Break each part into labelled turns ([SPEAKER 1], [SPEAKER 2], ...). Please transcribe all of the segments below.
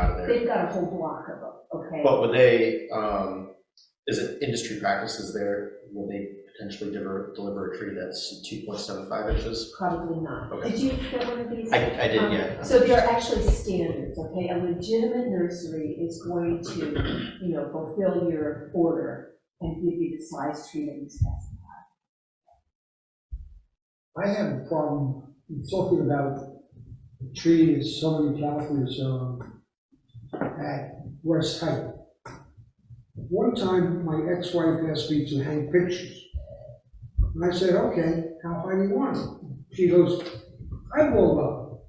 [SPEAKER 1] out of there.
[SPEAKER 2] They've got a whole block of them, okay?
[SPEAKER 1] But would they, um, is it industry practices there, will they potentially deliver, deliver a tree that's two point seven five inches?
[SPEAKER 2] Probably not.
[SPEAKER 1] Okay.
[SPEAKER 2] Did you get one of these?
[SPEAKER 1] I, I did,
[SPEAKER 2] Um,
[SPEAKER 1] yeah.
[SPEAKER 2] So there are actually standards, okay? A legitimate nursery is going to, you know, fulfill your order and give you the size tree that you specify.
[SPEAKER 3] I have a problem talking about the tree is so many California's, um, at West Height. One time, my ex-wife asked me to hang pictures. And I said, okay, how high do you want them? She goes, eyeball level.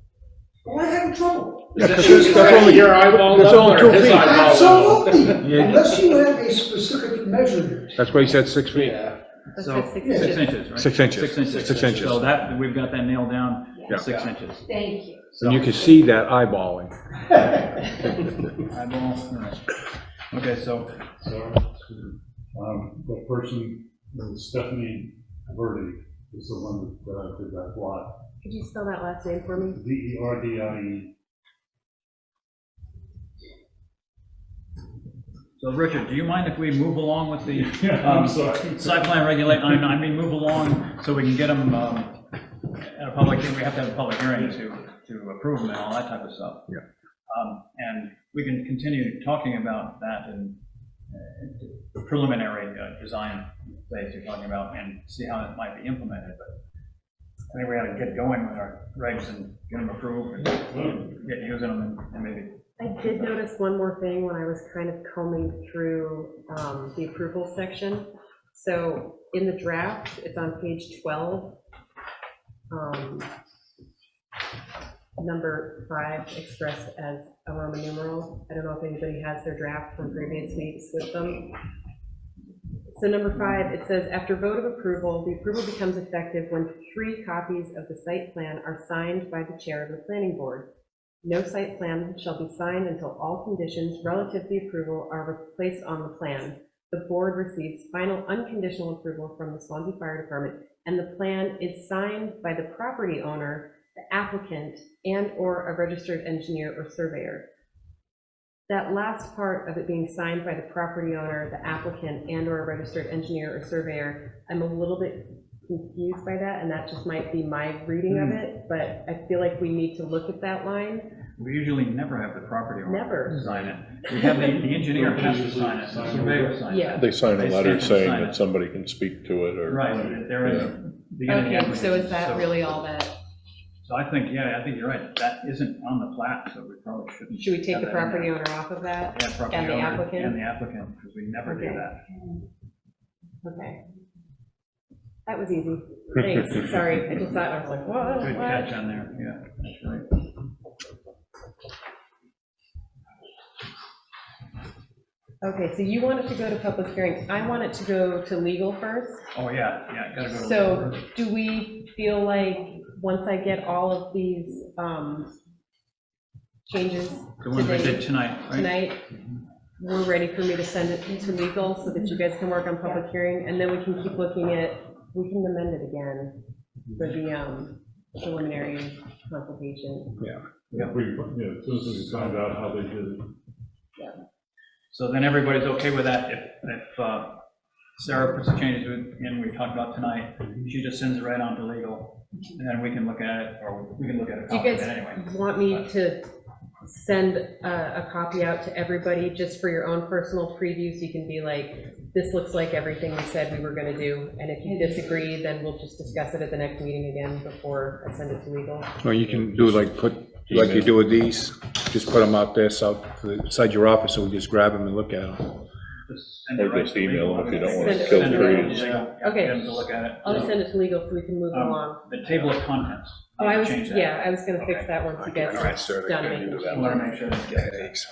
[SPEAKER 3] Well, I have trouble.
[SPEAKER 4] Yeah, 'cause
[SPEAKER 3] She's
[SPEAKER 4] that's only,
[SPEAKER 3] correct.
[SPEAKER 4] your eyeball that's level only or two his feet. eyeball level?
[SPEAKER 3] Absolutely,
[SPEAKER 4] Yeah.
[SPEAKER 3] unless you have a specific measurement.
[SPEAKER 4] that's why he said six feet.
[SPEAKER 1] Yeah.
[SPEAKER 5] That's
[SPEAKER 6] So-
[SPEAKER 5] what six
[SPEAKER 3] Yeah.
[SPEAKER 6] Six
[SPEAKER 5] inches.
[SPEAKER 6] inches, right?
[SPEAKER 4] Six inches.
[SPEAKER 6] Six inches.
[SPEAKER 4] Six inches.
[SPEAKER 6] So that, we've got that nailed down,
[SPEAKER 2] Yeah.
[SPEAKER 6] six inches.
[SPEAKER 2] Thank you.
[SPEAKER 4] And you can see that eyeballing.
[SPEAKER 6] Eyeball, all right.
[SPEAKER 7] Okay, so, so, um, the person, uh, Stephanie Verdi, is the one that uh, did that lot.
[SPEAKER 5] Could you spell that last name for me?
[SPEAKER 7] V E R D I E.
[SPEAKER 6] So Richard, do you mind if we move along with the
[SPEAKER 7] Yeah,
[SPEAKER 6] Um,
[SPEAKER 7] I'm sorry.
[SPEAKER 6] site plan regulate, I mean, I mean, move along so we can get them um, at a public, we have to have a public hearing to, to approve them and all that type of stuff.
[SPEAKER 4] Yeah.
[SPEAKER 6] Um, And we can continue talking about that and uh, preliminary uh, design phase you're talking about and see how it might be implemented, but I think we ought to get going with our regs and get them approved and get using them and- and maybe
[SPEAKER 5] I did notice one more thing when I was kind of combing through um, the approval section. So in the draft, it's on page 12. um, Number five expressed as a Roman numeral. I don't know if anybody has their draft from previous weeks with them. So number five, it says, after vote of approval, the approval becomes effective when three copies of the site plan are signed by the chair of the planning board. No site plan shall be signed until all conditions relative to the approval are placed on the plan. The board receives final unconditional approval from the Swansea Fire Department, and the plan is signed by the property owner, the applicant, and/or a registered engineer or surveyor. That last part of it being signed by the property owner, the applicant, and/or a registered engineer or surveyor, I'm a little bit confused by that, and that just might be my reading of it, but I feel like we need to look at that line
[SPEAKER 6] We usually never have the property owner.
[SPEAKER 5] Never.
[SPEAKER 6] Sign it. We have the, the engineer has to sign it, the surveyor signs
[SPEAKER 5] Yeah.
[SPEAKER 6] it.
[SPEAKER 8] They sign
[SPEAKER 6] They
[SPEAKER 8] a
[SPEAKER 6] stamp
[SPEAKER 8] letter
[SPEAKER 6] and
[SPEAKER 8] saying
[SPEAKER 6] sign it.
[SPEAKER 8] that somebody can speak to it, or.
[SPEAKER 6] Right, if there is. beginning and
[SPEAKER 5] Okay,
[SPEAKER 6] end.
[SPEAKER 5] so is that really all that,
[SPEAKER 6] So I think, yeah, I think you're right. That isn't on the plat, so we probably shouldn't.
[SPEAKER 5] should we take
[SPEAKER 6] have
[SPEAKER 5] the
[SPEAKER 6] that in
[SPEAKER 5] property
[SPEAKER 6] there.
[SPEAKER 5] owner off of that?
[SPEAKER 6] Yeah, property
[SPEAKER 5] and the
[SPEAKER 6] owner
[SPEAKER 5] applicant?
[SPEAKER 6] And the applicant, because we never do
[SPEAKER 5] Okay.
[SPEAKER 6] that.
[SPEAKER 5] Okay. That was easy. Thanks, sorry, I just thought, I was like,
[SPEAKER 6] Good
[SPEAKER 5] what,
[SPEAKER 6] catch
[SPEAKER 5] what?
[SPEAKER 6] on there, yeah, that's right.
[SPEAKER 5] Okay, so you want it to go to public hearing, I want it to go to legal first.
[SPEAKER 6] Oh, yeah, yeah, gotta go. to-
[SPEAKER 5] So do we feel like, once I get all of these, um, changes
[SPEAKER 6] The ones we did
[SPEAKER 5] today,
[SPEAKER 6] tonight, right?
[SPEAKER 5] tonight, we're ready for me to send it to legal so that you guys can work on public hearing, and then we can keep looking at, we can amend it again for the, um, preliminary consultation.
[SPEAKER 7] Yeah, we, yeah, as soon as we find out how they did it.
[SPEAKER 6] So then everybody's okay with that, if, if uh, Sarah puts the changes in, we talked about tonight, she just sends it right on to legal, and then we can look at it, or we can look at a
[SPEAKER 5] Do you
[SPEAKER 6] copy of
[SPEAKER 5] guys
[SPEAKER 6] it anyway.
[SPEAKER 5] want me to send a, a copy out to everybody just for your own personal preview, so you can be like, this looks like everything we said we were gonna do, and if you disagree, then we'll just discuss it at the next meeting again before I send it to legal?
[SPEAKER 4] Well, you can do like, put, like you do with these, just put them out there, so, inside your office, so we just grab them and look at them.
[SPEAKER 6] Just send it
[SPEAKER 8] Or
[SPEAKER 6] right
[SPEAKER 8] just
[SPEAKER 6] to
[SPEAKER 8] email
[SPEAKER 6] legal.
[SPEAKER 8] them if you don't
[SPEAKER 5] wanna
[SPEAKER 6] Send it
[SPEAKER 5] kill
[SPEAKER 6] right to
[SPEAKER 5] trees.
[SPEAKER 6] legal.
[SPEAKER 5] Okay.
[SPEAKER 6] Get them to look at it.
[SPEAKER 5] I'll send it to legal so we can move
[SPEAKER 6] Um,
[SPEAKER 5] along.
[SPEAKER 6] The table of contents.
[SPEAKER 5] Oh, I was,
[SPEAKER 6] Change that.
[SPEAKER 5] yeah, I was gonna fix
[SPEAKER 6] Okay.
[SPEAKER 5] that once you guys
[SPEAKER 4] Alright, sir,
[SPEAKER 5] are done
[SPEAKER 4] they
[SPEAKER 5] making
[SPEAKER 4] do
[SPEAKER 6] I
[SPEAKER 4] that.
[SPEAKER 6] want to make
[SPEAKER 5] changes.
[SPEAKER 6] sure that we get that.
[SPEAKER 4] Thanks.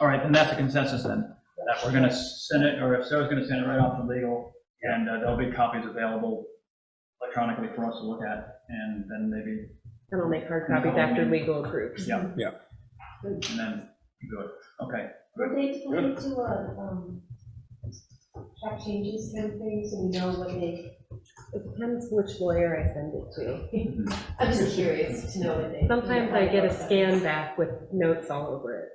[SPEAKER 6] All right, then that's a consensus then, that we're going to send it, or if Sarah's going to send it right off to legal, and uh, there'll be copies available electronically for us to look at, and then maybe,
[SPEAKER 5] And I'll make hard copies after legal approves.
[SPEAKER 6] yeah.
[SPEAKER 4] Yeah.
[SPEAKER 6] And then do it, okay.
[SPEAKER 2] Were they going to, uh, um, track changes kind of thing, so we know what they,
[SPEAKER 5] It depends which lawyer I send it
[SPEAKER 2] I'm just curious to know what they.
[SPEAKER 5] to. Sometimes I get a scan back with notes all over it.